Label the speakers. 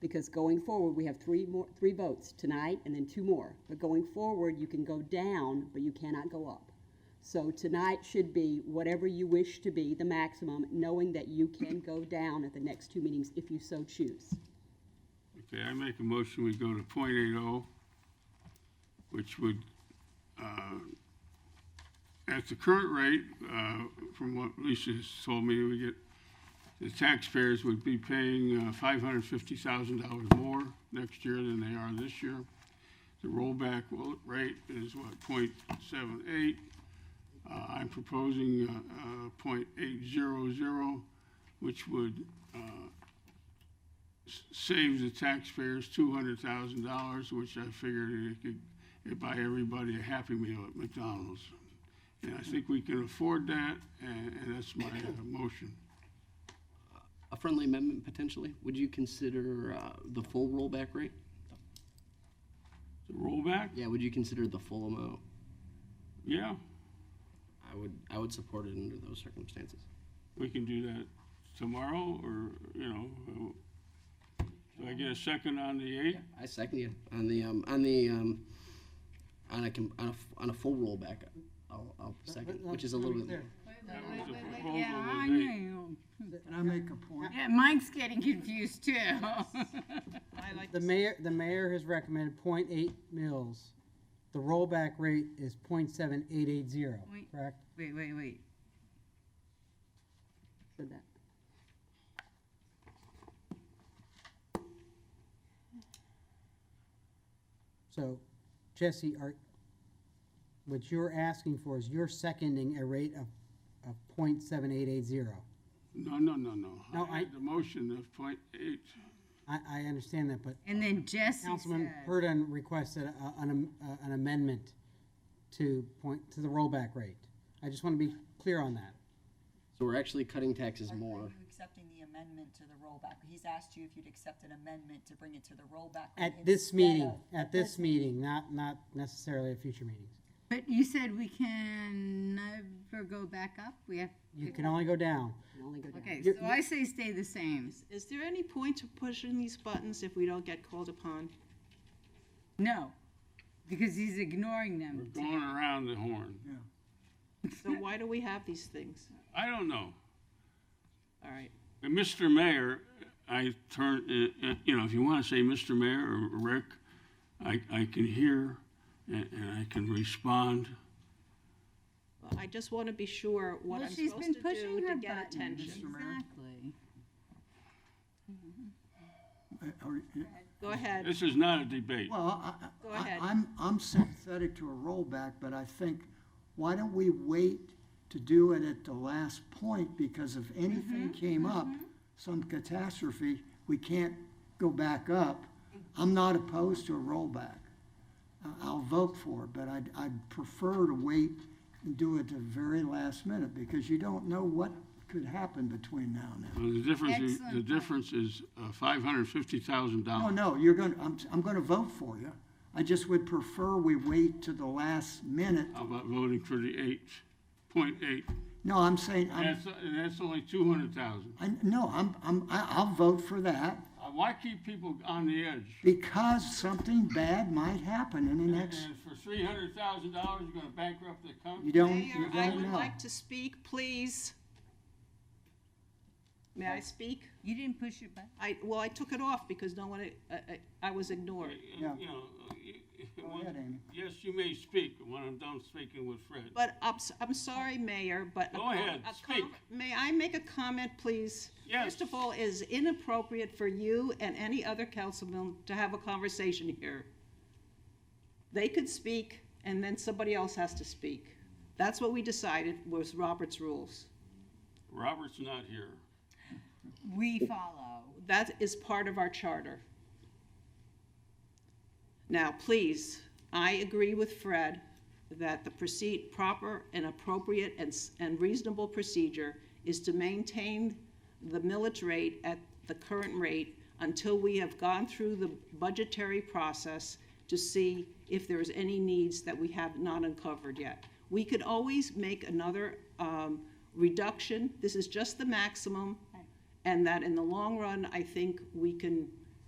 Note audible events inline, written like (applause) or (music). Speaker 1: because going forward, we have three more, three votes tonight and then two more. But going forward, you can go down, but you cannot go up. So tonight should be whatever you wish to be, the maximum, knowing that you can go down at the next two meetings if you so choose.
Speaker 2: Okay, I make a motion, we go to point eight oh, which would, uh, at the current rate, uh, from what Lisa's told me, we get, the taxpayers would be paying uh, five hundred fifty thousand dollars more next year than they are this year. The rollback will- rate is what, point seven eight? Uh, I'm proposing, uh, uh, point eight zero zero, which would, uh, s- saves the taxpayers two hundred thousand dollars, which I figured it could, it'd buy everybody a Happy Meal at McDonald's. And I think we can afford that, and, and that's my uh, motion.
Speaker 3: A friendly amendment potentially? Would you consider uh, the full rollback rate?
Speaker 2: The rollback?
Speaker 3: Yeah, would you consider the full amount?
Speaker 2: Yeah,
Speaker 3: I would, I would support it under those circumstances.
Speaker 2: we can do that tomorrow, or, you know, uh, do I get a second on the eighth?
Speaker 3: I second you on the, um, on the, um, on a, com- on a, f- on a full rollback, I'll, I'll second, which is a little bit.
Speaker 2: That was the proposal,
Speaker 4: Yeah, I
Speaker 2: was eight.
Speaker 4: knew.
Speaker 5: Can I make a point?
Speaker 4: Yeah, mine's getting confused too.
Speaker 5: The mayor, the mayor has recommended 0.8 mils. The rollback rate is 0.7880.
Speaker 4: Wait.
Speaker 5: correct?
Speaker 4: Wait, wait, wait.
Speaker 1: Said that.
Speaker 5: So, Jesse, are, what you're asking for is you're seconding a rate of, of 0.7880.
Speaker 2: No, no, no, no.
Speaker 5: No,
Speaker 2: I
Speaker 5: I-
Speaker 2: had the motion of point eight,
Speaker 5: I, I understand that, but
Speaker 4: And then Jesse
Speaker 5: Councilman
Speaker 4: said,
Speaker 5: Purdon requested a- an, am- uh, an amendment to point, to the rollback rate. I just want to be clear on that.
Speaker 3: So we're actually cutting taxes
Speaker 6: Are- Are
Speaker 3: more.
Speaker 6: you accepting the amendment to the rollback? He's asked you if you'd accept an amendment to bring it to the rollback.
Speaker 5: At this
Speaker 6: instead
Speaker 5: meeting,
Speaker 6: of-
Speaker 5: at this meeting, not, not necessarily at future meetings.
Speaker 4: but you said we can never go back up? We have,
Speaker 5: You can only go down.
Speaker 1: Only go down.
Speaker 4: okay, so I say stay the same.
Speaker 7: Is there any point to pushing these buttons if we don't get called upon?
Speaker 4: No, because he's ignoring
Speaker 2: we're
Speaker 4: them.
Speaker 2: going around the horn.
Speaker 4: (laughs)
Speaker 7: So why do we have these things?
Speaker 2: I don't know.
Speaker 7: All right.
Speaker 2: And Mr. Mayor, I turn, uh, uh, you know, if you want to say Mr. Mayor or Rick, I, I can hear and, and I can respond.
Speaker 7: Well, I just want to be sure what
Speaker 4: Well,
Speaker 7: I'm
Speaker 4: she's been
Speaker 7: supposed to
Speaker 4: pushing
Speaker 7: do
Speaker 4: her
Speaker 7: to get
Speaker 4: buttons,
Speaker 7: attention.
Speaker 4: exactly.
Speaker 8: I- are you-
Speaker 7: Go ahead.
Speaker 2: This is not a debate.
Speaker 8: Well, Uh, I-
Speaker 7: Go
Speaker 8: I- I,
Speaker 7: ahead.
Speaker 8: I'm, I'm sympathetic to a rollback, but I think, why don't we wait to do it at the last point? Because if
Speaker 7: Mm-hmm.
Speaker 8: anything came up, some catastrophe, we can't go back up. I'm not opposed to a rollback. I- I'll vote for it, but I'd, I'd prefer to wait and do it the very last minute because you don't know what could happen between now and then.
Speaker 2: Well, The difference, is- the
Speaker 4: Excellent.
Speaker 2: difference is uh, five hundred fifty thousand
Speaker 8: No,
Speaker 2: dollars.
Speaker 8: Oh, no, you're gonna, I'm, I'm gonna vote for you. I just would prefer we wait to the last minute.
Speaker 2: How about voting for the eight, point eight?
Speaker 8: No, I'm saying, I'm,
Speaker 2: That's, and that's only two hundred thousand. Uh,
Speaker 8: I, no, I'm, I'm, I- I'll vote for that
Speaker 2: Why keep people on the edge?
Speaker 8: because something bad might happen in the next,
Speaker 2: And for three hundred thousand dollars, you're gonna bankrupt the company?
Speaker 8: you don't,
Speaker 7: Mayor,
Speaker 8: you
Speaker 7: I
Speaker 8: don't
Speaker 7: would
Speaker 8: know.
Speaker 7: like to speak, please. May I speak?
Speaker 4: You didn't push your button?
Speaker 7: I, well, I took it off because no one, I, I, I was ignored.
Speaker 8: Yeah.
Speaker 2: You know, you-
Speaker 8: Go ahead, Amy.
Speaker 2: Yes, you may speak when I'm done speaking with Fred.
Speaker 7: But I'm, s- I'm sorry, Mayor, but. a
Speaker 2: Go
Speaker 7: co-
Speaker 2: ahead,
Speaker 7: a
Speaker 2: speak.
Speaker 7: com- May I make a comment, please?
Speaker 2: Yes.
Speaker 7: First of all, it is inappropriate for you and any other councilman to have a conversation here. They could speak, and then somebody else has to speak. That's what we decided was Robert's rules.
Speaker 2: Robert's not here.
Speaker 4: We follow.
Speaker 7: That is part of our charter. Now, please, I agree with Fred that the proceed, proper and appropriate and, s- and reasonable procedure is to maintain the millage rate at the current rate until we have gone through the budgetary process to see if there's any needs that we have not uncovered yet. We could always make another, um, reduction, this is just the maximum, and that in the long run, I think we can